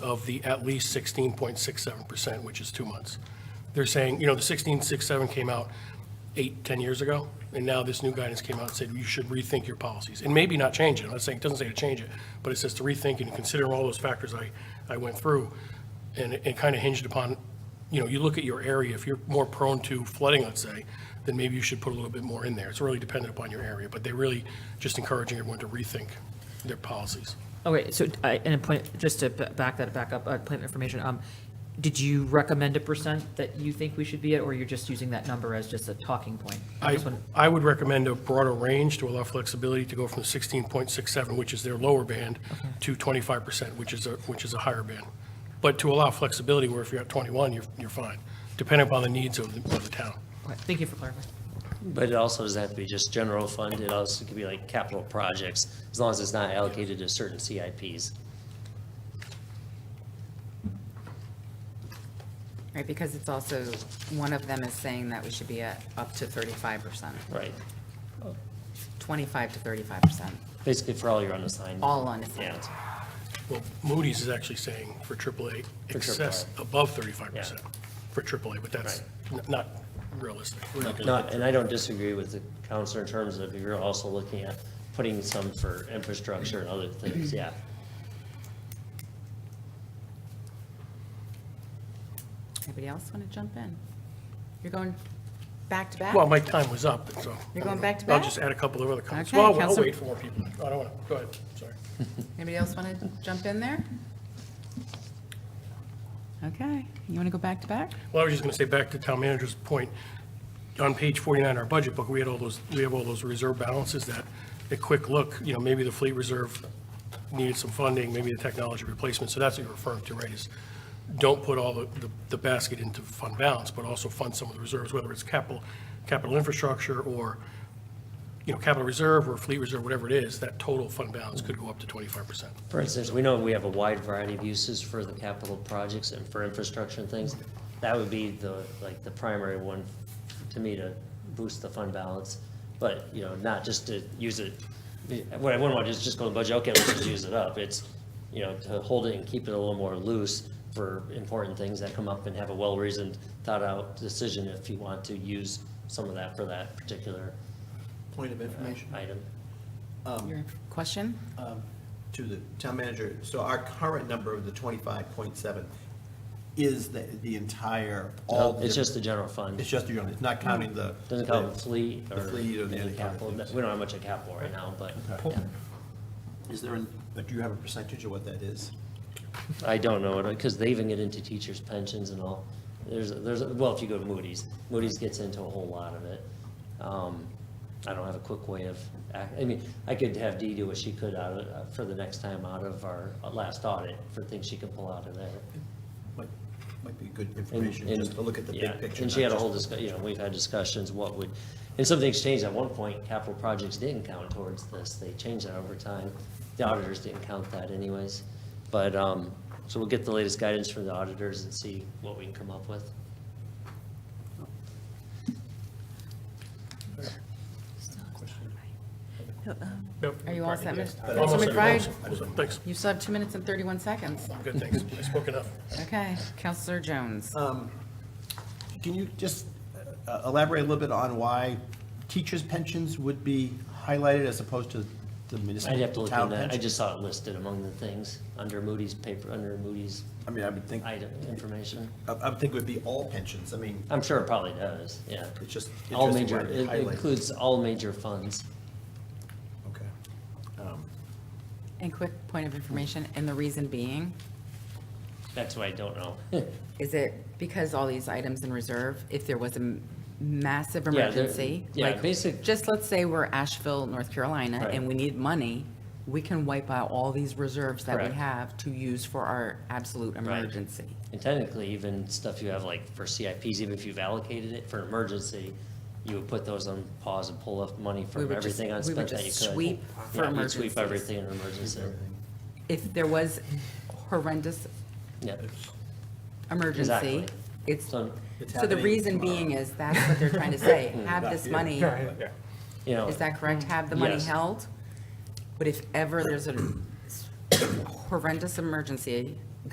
of the at least 16.67%, which is two months. They're saying, you know, the 16.67 came out eight, 10 years ago, and now this new guidance came out and said you should rethink your policies, and maybe not change it, I'm not saying, it doesn't say to change it, but it says to rethink and consider all those factors I, I went through, and it kind of hinged upon, you know, you look at your area, if you're more prone to flooding, let's say, then maybe you should put a little bit more in there, it's really dependent upon your area, but they're really just encouraging everyone to rethink their policies. Okay, so, I- and a point, just to b- back that, back up, uh, plant information, um, did you recommend a percent that you think we should be at, or you're just using that number as just a talking point? I, just wanna- I would recommend a broader range to allow flexibility to go from the 16.67, which is their lower band, to 25%, which is a, which is a higher band. But to allow flexibility where if you're at 21, you're, you're fine, depending upon the needs of the, of the town. okay, Thank you for clarifying. But it also doesn't have to be just general fund, it also could be like capital projects, as long as it's not allocated to certain CIPs. Right, because it's also, one of them is saying that we should be at up to thirty-five percent, Right. twenty-five to thirty-five percent, Basically for all your unassigned. all unassigned. Yeah. Well, Moody's is actually saying for AAA, excess above 35%. Yeah. For AAA, but that's n- not realistic. We're not gonna- Not, and I don't disagree with the counselor in terms of you're also looking at putting some for infrastructure and other things, yeah. Anybody else want to jump in? You're going back to back? Well, my time was up, and so. You're going back to I'll back? just add a couple of other comments. Okay, Well, I'll Counselor- wait for more people. I don't want to, go ahead, sorry. Anybody else want to jump in there? Okay, you want to go back to back? Well, I was just going to say, back to town manager's point, on page 49 of our budget book, we had all those, we have all those reserve balances that, a quick look, you know, maybe the fleet reserve needed some funding, maybe the technology replacement, so that's what you're referring to, right, is don't put all the, the- the basket into fund balance, but also fund some of the reserves, whether it's capital, capital infrastructure, or, you know, capital reserve, or fleet reserve, whatever it is, that total fund balance could go up to 25%. For instance, we know we have a wide variety of uses for the capital projects and for infrastructure and things. That would be the, like, the primary one to me to boost the fund balance. But, you know, not just to use it, what I wouldn't want is just go to the budget, okay, let's just use it up. It's, you know, to hold it and keep it a little more loose for important things that come up and have a well-reasoned, thought-out decision if you want to use some of that for that particular Point of information item. Your question? to the town manager. So our current number of the twenty-five point seven is the, the entire, all the. It's just the different- general fund. It's just the, it's not counting the. Doesn't count the fleet Oh, The or fleet or the any other capital. things. We don't have much of capital right now, but Okay. yeah. Is there, an- do you have a percentage of what that is? I don't know, because they even get into teachers' pensions and all. There's, there's, well, if you go to Moody's, Moody's gets into a whole lot of it. Um, I don't have a quick way of, ac- I mean, I could have Dee do what she could out of, for the next time out of our last audit, for things she can pull out of there. Might, might be good And- information, and- just to look at the yeah, big picture. And she had not a whole just- discussion, you know, we've had discussions, what would, and some things changed at one point, capital projects didn't count towards this, they changed that over time. The auditors didn't count that anyways, but, um, so we'll get the latest guidance from the auditors and see what we can come up with. Are you all set, Ms.? Almost Councilman said it, McBride? almost said it. Thanks, You still have two minutes and thirty-one seconds. good, thanks, I spoke enough. Okay, Counselor Jones. Can you just uh, elaborate a little bit on why teachers' pensions would be highlighted as opposed to the municipal I'd have to look town in that, I pension? just saw it listed among the things, under Moody's paper, under Moody's I mean, I would think, I, item, information. I would think it would be all pensions. I mean, I'm sure it probably does, yeah. it's just All major, interesting why they it highlight. includes all major funds. Okay. And quick point of information, and the reason being, That's what I don't know. is it because all these items in reserve, if there was a m- massive Yeah, they're- emergency? yeah, like, basic- Just let's say we're Asheville, North Carolina, Right. and we need money, we can wipe out all these reserves that we Correct. have to use for our absolute emergency. And technically, even stuff you have like for CIPs, even if you've allocated it for emergency, you would put those on pause and pull up money We from would just- everything we would unspent that you could. just sweep for Yeah, you'd emergencies. Sweep everything in emergency. If there was horrendous Yeah. emergency, Exactly. it's, So, It's so the happening reason tomorrow. being is that's what they're trying to say, have this money, you know, is that correct? Have the money Yes. held? But if ever there's a horrendous emergency,